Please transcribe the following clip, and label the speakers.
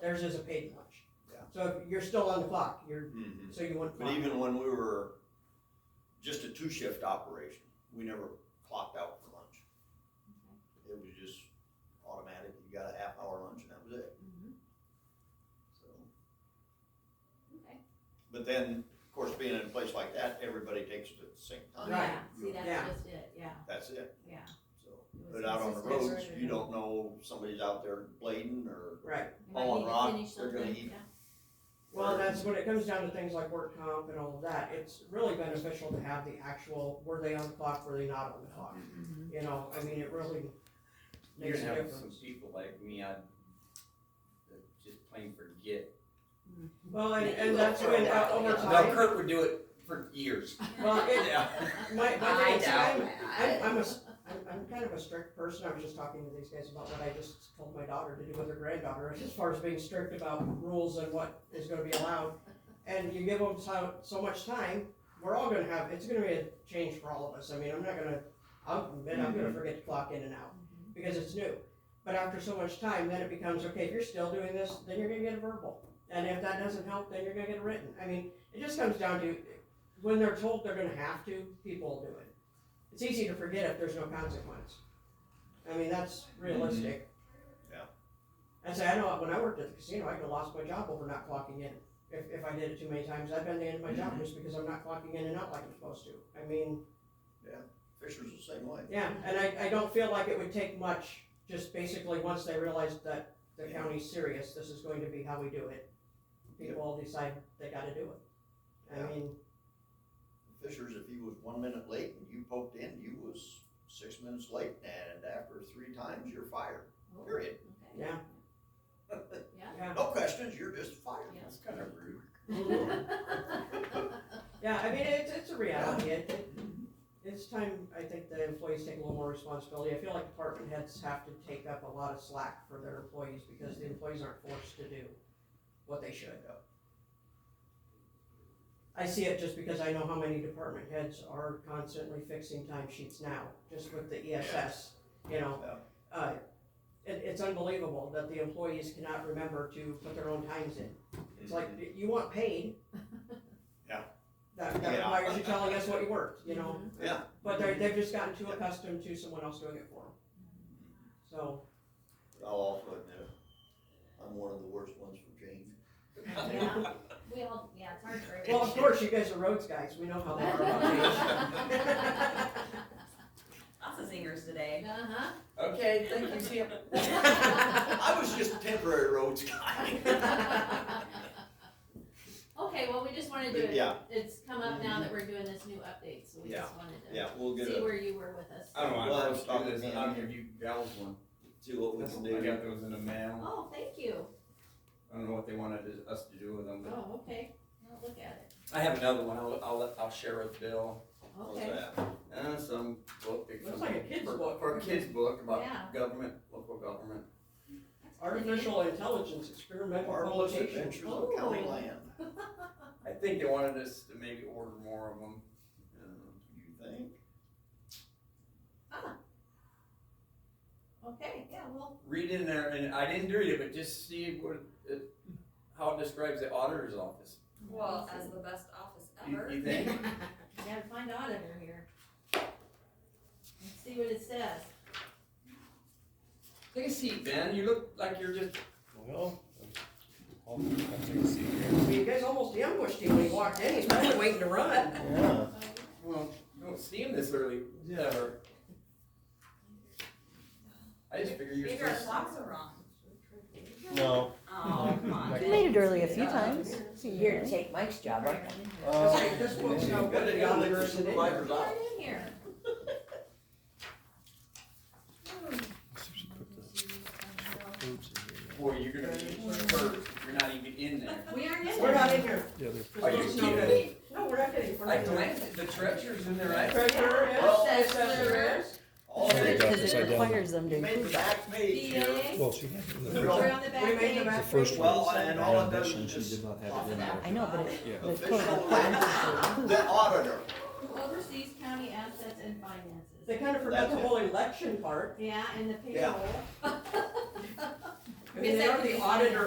Speaker 1: Theirs is a paid lunch.
Speaker 2: Yeah.
Speaker 1: So you're still on the clock, you're,
Speaker 2: Mhm.
Speaker 1: so you wouldn't.
Speaker 2: But even when we were just a two shift operation, we never clocked out for lunch.
Speaker 3: Mm-hmm.
Speaker 2: It was just automatic, you got a half hour lunch and that was it,
Speaker 3: Mm-hmm.
Speaker 2: so.
Speaker 3: Okay.
Speaker 2: But then, of course, being in a place like that, everybody takes it at the same time.
Speaker 3: Oh, Yeah,
Speaker 2: You-
Speaker 3: see, that's
Speaker 1: Yeah.
Speaker 3: just it, yeah,
Speaker 2: That's it,
Speaker 3: yeah.
Speaker 2: so.
Speaker 3: It was
Speaker 2: But out on the
Speaker 3: consistent
Speaker 2: roads,
Speaker 3: over
Speaker 2: you
Speaker 3: and
Speaker 2: don't
Speaker 3: over.
Speaker 2: know if somebody's out there blading or,
Speaker 1: Right,
Speaker 3: You might
Speaker 2: Oh,
Speaker 3: need to
Speaker 2: rock,
Speaker 3: finish
Speaker 2: they're gonna
Speaker 3: something,
Speaker 2: eat.
Speaker 3: yeah.
Speaker 1: well, and that's when it comes down to things like work comp and all of that, it's really beneficial to have the actual, were they on the clock, were they not on the clock?
Speaker 2: Mm-hmm.
Speaker 1: You know, I mean, it really
Speaker 4: You're
Speaker 1: makes a
Speaker 4: gonna have some
Speaker 1: difference.
Speaker 4: people like me, I just plain forget.
Speaker 1: Well, and, and that's when, uh, over
Speaker 4: No,
Speaker 1: time,
Speaker 4: Kurt would do it for years.
Speaker 1: well, it,
Speaker 4: Yeah.
Speaker 1: my, my thing is, I'm, I'm, I'm a,
Speaker 3: I-
Speaker 1: s- I'm, I'm kind of a strict person, I was just talking to these guys about what I just told my daughter to do with her granddaughter, as far as being strict about rules and what is gonna be allowed. And you give them so, so much time, we're all gonna have, it's gonna be a change for all of us, I mean, I'm not gonna, I'll admit, I'm gonna forget to clock in and out, because it's new. But after so much time, then it becomes, okay, if you're still doing this, then you're gonna get a verbal, and if that doesn't help, then you're gonna get a written, I mean, it just comes down to, when they're told they're gonna have to, people will do it. It's easy to forget if there's no consequence. I mean, that's
Speaker 2: Mm-hmm.
Speaker 1: realistic.
Speaker 2: Yeah.
Speaker 1: I say, I know, when I worked at the casino, I could've lost my job over not clocking in, if, if I did it too many times, I've been the end of my job
Speaker 2: Mm-hmm.
Speaker 1: just because I'm not clocking in and out like I'm supposed to, I mean,
Speaker 2: Fisher's the same way.
Speaker 1: yeah, and I, I don't feel like it would take much, just basically, once they realize that the
Speaker 2: Yeah.
Speaker 1: county's serious, this is going to be how we do it. People will decide they gotta do it, I
Speaker 2: Yeah.
Speaker 1: mean,
Speaker 2: Fisher's, if he was one minute late and you poked in, you was six minutes late, and after three times, you're fired,
Speaker 3: Oh, okay.
Speaker 2: period.
Speaker 1: Yeah.
Speaker 3: Yeah.
Speaker 1: yeah.
Speaker 2: No questions, you're just fired.
Speaker 3: Yeah.
Speaker 4: That's kind of rude.
Speaker 1: Yeah, I mean, it's, it's a reality, it, it, it's time, I think the employees take a little more responsibility, I feel like department heads have to take up a lot of slack for their employees, because the employees aren't forced to do what they should. I see it just because I know how many department heads are constantly fixing timesheets now, just with the ESS, you know? Uh, it, it's unbelievable that the employees cannot remember to put their own times in. It's like, you want paid.
Speaker 2: Yeah.
Speaker 1: That, that
Speaker 2: Yeah.
Speaker 1: requires you telling us what you worked, you know?
Speaker 4: Mm-hmm.
Speaker 2: Yeah.
Speaker 1: But they're, they've just gotten too accustomed to someone else doing it for them. So,
Speaker 2: But I'll also admit, I'm one of the worst ones for change.
Speaker 3: Yeah. We all, yeah, it's hard for
Speaker 1: well,
Speaker 3: everyone.
Speaker 1: of course, you guys are roads guys, we know how they are about change.
Speaker 5: Lots of zingers today.
Speaker 3: Uh-huh.
Speaker 4: Okay, thank you, Tim.
Speaker 2: I was just a temporary roads guy.
Speaker 3: Okay, well, we just wanted to,
Speaker 2: Yeah. Mm-hmm.
Speaker 3: it's come up now that we're doing this new update, so we just wanted to
Speaker 2: Yeah, we'll get Uh,
Speaker 3: see
Speaker 2: a,
Speaker 3: where you were with us.
Speaker 4: I don't
Speaker 2: Well,
Speaker 4: want
Speaker 2: stop
Speaker 4: to do this,
Speaker 2: it.
Speaker 4: I'll give you gals one.
Speaker 2: see what we can
Speaker 4: I
Speaker 2: do.
Speaker 4: got those in the mail.
Speaker 3: Oh, thank you.
Speaker 4: I don't know what they wanted us- us to do with them, but
Speaker 3: Oh, okay. Now look at
Speaker 4: I have another one, I'll, I'll, let- I'll share with Bill.
Speaker 3: it.
Speaker 2: How's
Speaker 3: Okay.
Speaker 2: that?
Speaker 4: Uh, some book. it's
Speaker 1: Looks
Speaker 4: some-
Speaker 1: like a kid's
Speaker 4: for-
Speaker 1: book.
Speaker 4: For a kid's book
Speaker 3: Yeah.
Speaker 4: about government, local government.
Speaker 1: Artificial intelligence experimental
Speaker 2: Marvelous
Speaker 1: publication.
Speaker 2: adventures of county
Speaker 3: Oh.
Speaker 2: land,
Speaker 4: I think they wanted us to maybe order more of them. Uh,
Speaker 2: you think?
Speaker 3: Okay, yeah, well,
Speaker 4: Read in there, and I didn't read it, but just see what, it- how it describes the auditor's office.
Speaker 5: Well, as the best office
Speaker 4: You,
Speaker 5: ever.
Speaker 4: you think?
Speaker 3: You gotta find auditor here. Let's see what it says.
Speaker 4: Take a seat, Ben, you look like you're just,
Speaker 6: Well, I'll, I'll take a seat here.
Speaker 1: You guys almost ambushed him when he walked in, he's probably waiting to run.
Speaker 2: Yeah.
Speaker 4: well, you don't seem this early, ever. I just figure you're
Speaker 5: Maybe our
Speaker 4: first.
Speaker 5: clocks are wrong.
Speaker 6: No,
Speaker 5: Oh, come on.
Speaker 6: Like-
Speaker 7: You made it early a few
Speaker 5: Yeah.
Speaker 7: times.
Speaker 8: So you're to take Mike's job, aren't you?
Speaker 1: It's like, this book's
Speaker 6: yeah.
Speaker 1: not good, the auditor's in it.
Speaker 4: Supervisor's
Speaker 3: Put
Speaker 4: office.
Speaker 3: it in here.
Speaker 6: put the boots in
Speaker 4: Boy, you're gonna be first, you're not even in there.
Speaker 3: We aren't in
Speaker 1: We're not
Speaker 3: there.
Speaker 1: in here.
Speaker 6: here. Yeah,
Speaker 1: This
Speaker 4: Are you
Speaker 1: book's not
Speaker 4: kidding
Speaker 1: good.
Speaker 4: me?
Speaker 1: No, we're not kidding, we're
Speaker 4: I
Speaker 1: not in here.
Speaker 4: glanced at the treasurer's in there, right?
Speaker 1: Treasurer is,
Speaker 2: Well,
Speaker 1: assessor is.
Speaker 2: All
Speaker 6: There you go.
Speaker 2: the
Speaker 7: Because it
Speaker 6: upside down.
Speaker 7: requires them to
Speaker 2: made the
Speaker 7: include that.
Speaker 2: back page here.
Speaker 3: DA,
Speaker 6: well, she had it in the
Speaker 2: We
Speaker 6: first,
Speaker 3: we're on the
Speaker 1: We
Speaker 3: back
Speaker 1: made the
Speaker 3: page.
Speaker 6: the
Speaker 1: back
Speaker 6: first
Speaker 1: page.
Speaker 6: one.
Speaker 2: Well, and all it does
Speaker 6: rendition,
Speaker 2: is
Speaker 6: She
Speaker 2: just
Speaker 6: did not have it in there.
Speaker 7: I know, but it,
Speaker 6: Yeah.
Speaker 7: the
Speaker 2: official,
Speaker 7: code
Speaker 2: the auditor.
Speaker 3: Who oversees county assets and finances.
Speaker 1: They kind of forgot the
Speaker 2: That's it.
Speaker 1: whole election part.
Speaker 3: Yeah, and the
Speaker 2: Yeah.
Speaker 3: payroll.
Speaker 1: I mean, they are the auditor